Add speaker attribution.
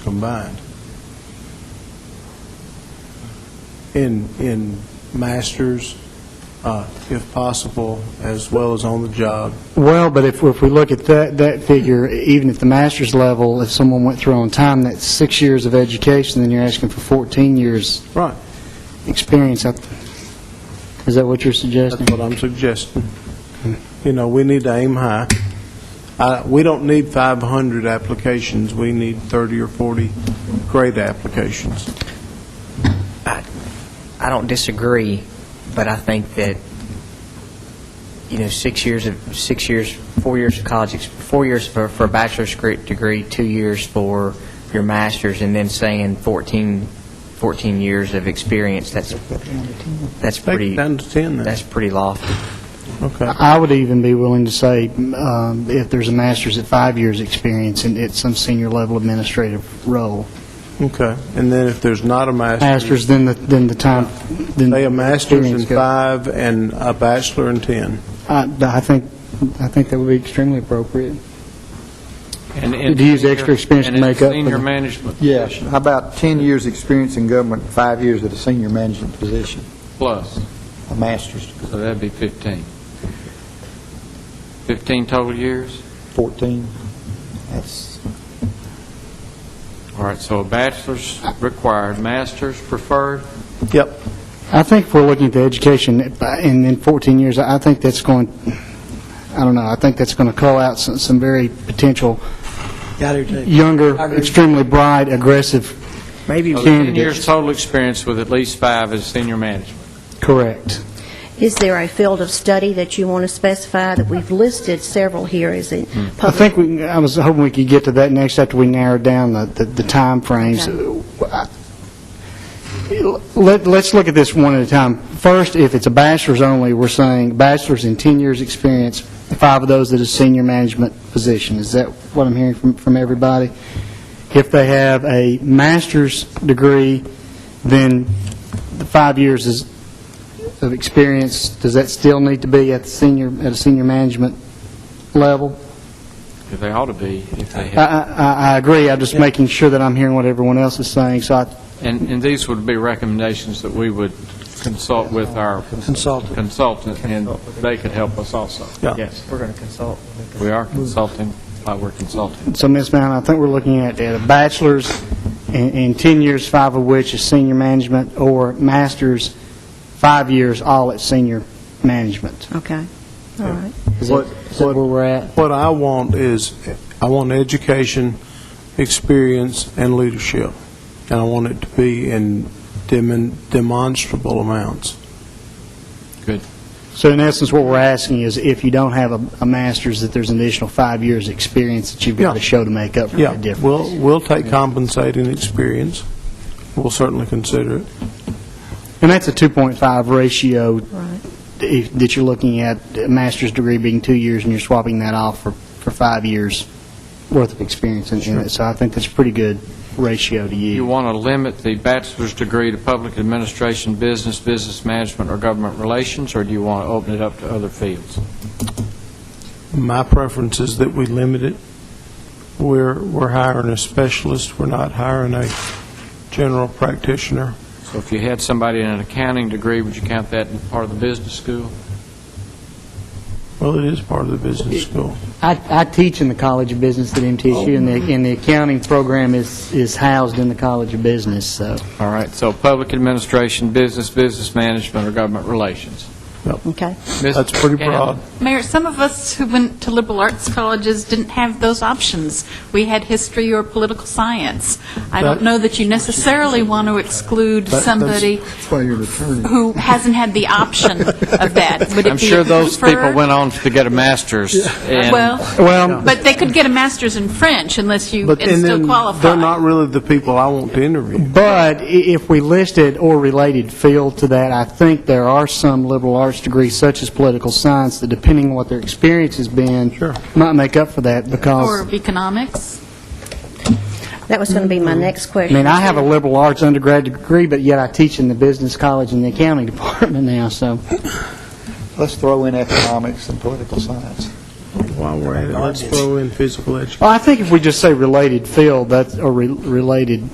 Speaker 1: combined in, in masters, uh, if possible, as well as on the job.
Speaker 2: Well, but if, if we look at that, that figure, even at the master's level, if someone went through on time, that's six years of education, then you're asking for 14 years
Speaker 1: Right,
Speaker 2: experience. I- Is that what you're suggesting?
Speaker 1: that's what I'm suggesting. You know, we need to aim high. I- We don't need 500 applications, we need 30 or 40 great applications.
Speaker 3: I, I don't disagree, but I think that, you know, six years of, six years, four years of college, ex- four years for, for a bachelor's gre- degree, two years for your master's, and then saying 14, 14 years of experience, that's, that's
Speaker 1: Take
Speaker 3: pretty,
Speaker 1: it down to 10 then.
Speaker 3: that's pretty lofty.
Speaker 1: Okay.
Speaker 2: I would even be willing to say, um, if there's a master's at five years' experience and it's some senior level administrative role,
Speaker 1: Okay, and then if there's not a master's,
Speaker 2: master's, then the, then the time, then...
Speaker 1: say a master's in
Speaker 2: experience goes-
Speaker 1: five and a bachelor in 10.
Speaker 2: I I think, I think that would be extremely appropriate.
Speaker 4: And- and
Speaker 2: To use
Speaker 4: senior-
Speaker 2: extra experience to
Speaker 4: and in
Speaker 2: make up for
Speaker 4: senior
Speaker 2: the-
Speaker 4: management
Speaker 5: Yeah,
Speaker 4: position
Speaker 5: how about 10 years' experience in government, five years at a senior management position,
Speaker 4: plus,
Speaker 5: a master's,
Speaker 4: so that'd be 15. 15 total years?
Speaker 5: 14? That's,
Speaker 4: All right, so a bachelor's required, master's preferred?
Speaker 1: Yep.
Speaker 2: I think if we're looking at the education, and in 14 years, I think that's going, I don't know, I think that's going to cull out some, some very potential younger, extremely bright, aggressive
Speaker 3: Maybe
Speaker 4: So 10 years
Speaker 2: candidates.
Speaker 4: total experience with at least five as senior management.
Speaker 2: Correct.
Speaker 6: Is there a field of study that you want to specify that we've listed several here? Is it
Speaker 2: I
Speaker 6: public?
Speaker 2: think, we. I was hoping we could get to that next after we narrow down the, the- the timeframes. I- Let, let's look at this one at a time. First, if it's a bachelor's only, we're saying bachelor's in 10 years' experience, five of those at a senior management position. Is that what I'm hearing from, from everybody? If they have a master's degree, then the five years is, of experience, does that still need to be at the senior, at a senior management level?
Speaker 4: They ought to be if they
Speaker 2: I,
Speaker 4: have.
Speaker 2: I, I- I agree, I'm just making sure that I'm hearing what everyone else is saying, so I,
Speaker 4: And, and these would be recommendations that we would consult with our
Speaker 1: Consultant.
Speaker 4: consultant, and they could help us also.
Speaker 1: Yeah.
Speaker 4: Yes. We're going to consult. We are consulting, uh, we're consulting.
Speaker 2: so Ms. Mound, I think we're looking at, at a bachelor's and, and 10 years, five of which is senior management, or master's, five years, all at senior management.
Speaker 6: Okay, all right.
Speaker 2: Is that, is that where we're at?
Speaker 1: What I want is, I want education, experience, and leadership, and I want it to be in demon- demonstrable amounts.
Speaker 4: Good.
Speaker 2: So in essence, what we're asking is if you don't have a, a master's, that there's an additional five years' experience that you've got to
Speaker 1: Yeah.
Speaker 2: show to make up for
Speaker 1: Yeah,
Speaker 2: the difference.
Speaker 1: we'll, we'll take compensating experience, we'll certainly consider it.
Speaker 2: And that's a 2.5 ratio
Speaker 6: Right.
Speaker 2: if- that you're looking at, a master's degree being two years, and you're swapping that off for, for five years' worth of experience in in it. So I think that's a pretty good ratio to
Speaker 4: You
Speaker 2: use.
Speaker 4: want to limit the bachelor's degree to public administration, business, business management, or government relations, or do you want to open it up to other fields?
Speaker 1: My preference is that we limit it. We're, we're hiring a specialist, we're not hiring a general practitioner.
Speaker 4: So if you had somebody in an accounting degree, would you count that as part of the business school?
Speaker 1: Well, it is part of the business school.
Speaker 2: I, I teach in the College of Business at MTSU, and the, and the accounting program is, is housed in the College of Business, so.
Speaker 4: All right, so public administration, business, business management, or government relations.
Speaker 6: Okay.
Speaker 4: Ms.
Speaker 1: That's pretty
Speaker 4: Gannon?
Speaker 1: broad.
Speaker 7: Mayor, some of us who went to liberal arts colleges didn't have those options. We had history or political science.
Speaker 1: That-
Speaker 7: I don't know that you necessarily want to exclude
Speaker 1: that's-
Speaker 7: somebody
Speaker 5: that's why you're an attorney.
Speaker 7: who hasn't had the option of that. Would it
Speaker 4: I'm
Speaker 7: be
Speaker 4: sure those people
Speaker 7: preferred?
Speaker 4: went on to get a master's. and- Um,
Speaker 7: Well,
Speaker 2: Well,
Speaker 7: but they could get a master's in French unless you,
Speaker 1: But
Speaker 7: and
Speaker 1: and
Speaker 7: still
Speaker 1: then They're not
Speaker 7: qualify.
Speaker 1: really the people I want to interview.
Speaker 2: But i- if we listed or related field to that, I think there are some liberal arts degrees, such as political science, that depending on what their experience has been.
Speaker 1: Sure.
Speaker 2: Might make up for that, because,
Speaker 7: Or economics.
Speaker 6: That was going to be my next
Speaker 2: I
Speaker 6: question.
Speaker 2: mean, I have a liberal arts undergrad degree, but yet I teach in the business college and the accounting department now, so.
Speaker 5: let's throw in economics and political science.
Speaker 1: while we're at it, let's throw in physical education.
Speaker 2: Well, I think if we just say related field, that's, or re- related